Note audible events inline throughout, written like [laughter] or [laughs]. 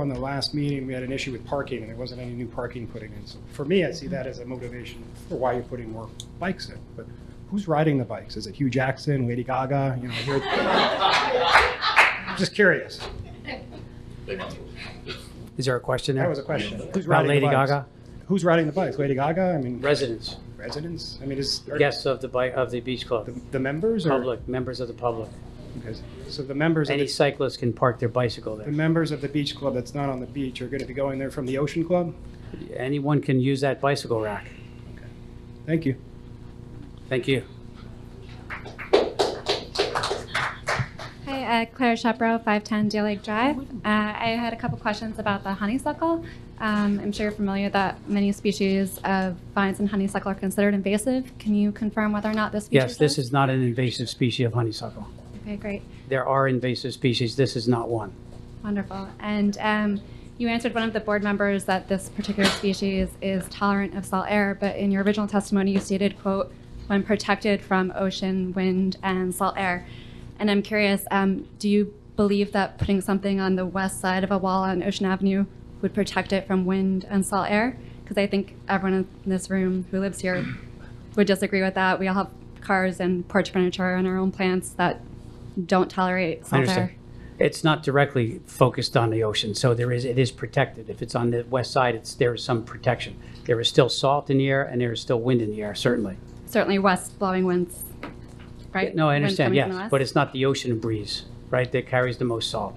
on the last meeting, we had an issue with parking, and there wasn't any new parking putting in. So for me, I see that as a motivation for why you're putting more bikes in. But who's riding the bikes? Is it Hugh Jackson, Lady Gaga? You know, you're- just curious. Is there a question there? That was a question. Who's About riding the Lady bikes? Gaga? Who's riding the bikes? Lady Gaga? I mean, Residents, residents? I mean, is are guests of the, bi- of the beach club, the, the members or public, members of the public. Okay. So the members of Any the, cyclist can park their bicycle the there. members of the beach club that's not on the beach are going to be going there from the Ocean Club. Anyone can use that bicycle rack. Thank you. Thank you. Hi, uh, Claire Shepro, 510 Deer Lake Drive. Uh, I had a couple questions about the honeysuckle. Um, I'm sure you're familiar that many species of vines and honeysuckle are considered invasive. Can you confirm whether or not this species Yes, this is not an invasive species of honeysuckle. Okay, great. There are invasive species, this is not one. Wonderful. And um, you answered one of the board members that this particular species is tolerant of salt air, but in your original testimony, you stated, quote, when protected from ocean, wind, and salt air. And I'm curious, um, do you believe that putting something on the west side of a wall on Ocean Avenue would protect it from wind and salt air? Because I think everyone in this room who lives here would disagree with that. We all have cars and porch furniture and our own plants that don't tolerate I salt understand. air. It's not directly focused on the ocean, so there is, it is protected. If it's on the west side, it's, there is some protection. There is still salt in the air and there is still wind in the air, certainly. certainly west blowing winds, right? No, I Wind understand, coming from yes, the but it's not the ocean breeze, right, that carries the most salt.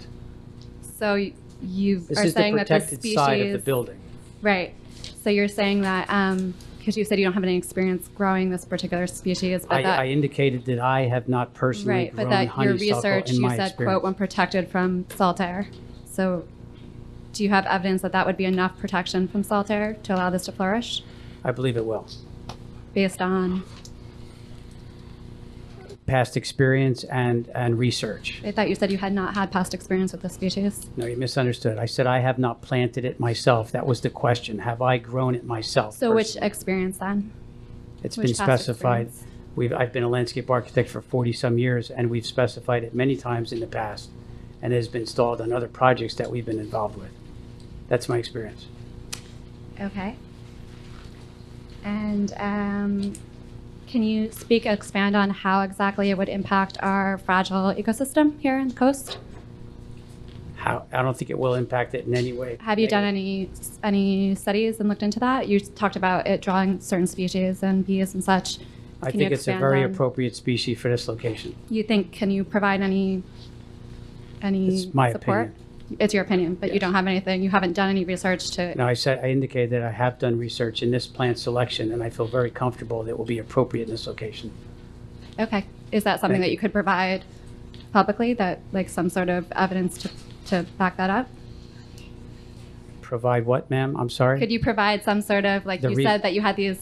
west. So y- you This are is the saying that the protected species. side of the building. Right. So you're saying that, um, because you said you don't have any experience growing this particular species, I, but I that, indicated that I have not personally right, but grown that your honeysuckle research, in you my said, quote, when experience. protected from salt air. So do you have evidence that that would be enough protection from salt air to allow this to flourish I believe it will. based on, Past experience and, and research. I thought you said you had not had past experience with this species? No, you misunderstood. I said I have not planted it myself. That was the question. Have I grown it myself? So which personally? experience then? It's which been past specified. experience? We've, I've been a landscape architect for 40-some years, and we've specified it many times in the past, and it has been installed on other projects that we've been involved with. That's my experience. Okay. And um, can you speak, expand on how exactly it would impact our fragile ecosystem here on the coast? How, I don't think it will impact it in any way. Have you done negative. any, any studies and looked into that? You talked about it drawing certain species and bees and such. I Can you think it's a expand very on- appropriate species for this location. You think, can you provide any, any It's my support? It's your opinion, but you don't have anything, you haven't done any research to, Now, I said, I indicated that I have done research in this plant selection, and I feel very comfortable that it will be appropriate in this location. okay. Is that something Thank that you. you could provide publicly, that, like, some sort of evidence to, to back that up? Provide what, ma'am? I'm sorry? Could you provide some sort of, like The you re- said that you had these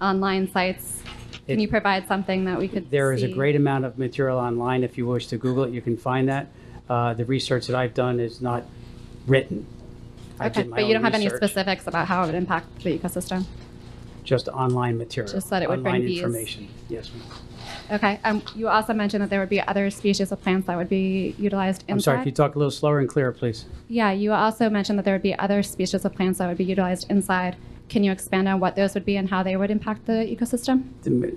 online sites? Can It- you provide something that we could There is a see? great amount of material online. If you wish to Google it, you can find that. Uh, The research that I've done is not written. I Okay, did my but you own don't have any research, specifics about how it would impact the ecosystem? Just online material. Just that it would bring Online bees. information. Yes, ma'am. Okay, um, you also mentioned that there would be other species of plants that would be utilized inside? I'm sorry, Can you talk a little slower and clearer, please? Yeah, you also mentioned that there would be other species of plants that would be utilized inside. Can you expand on what those would be and how they would impact the ecosystem? the-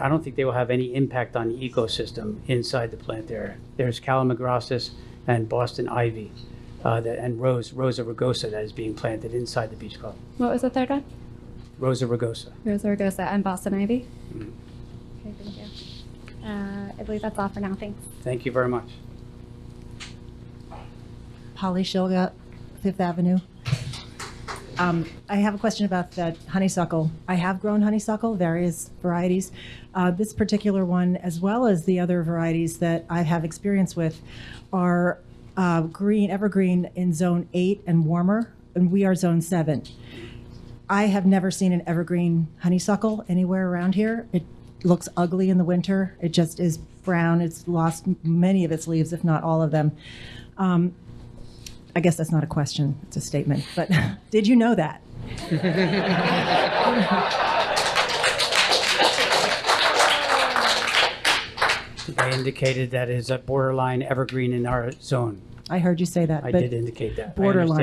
I don't think they will have any impact on the ecosystem inside the plant area. There's calamagrostis and Boston ivy uh, that- and rose, Rosa rugosa that is being planted inside the beach club. What was the third one? Rosa rugosa. Rosa rugosa and Boston ivy? Okay, thank you. Uh, I believe that's all for now, thanks. Thank you very much. Polly Shilga, Fifth Avenue. Um, I have a question about the honeysuckle. I have grown honeysuckle, various varieties. Uh, this particular one, as well as the other varieties that I have experience with, are uh, green, evergreen in zone eight and warmer, and we are zone seven. I have never seen an evergreen honeysuckle anywhere around here. It looks ugly in the winter. It just is brown. It's lost m- many of its leaves, if not all of them. Um, I guess that's not a question, it's a statement, but [laughs] did you know that? I indicated that is a borderline evergreen in our zone. I heard you say that. I but- did indicate that. I borderline.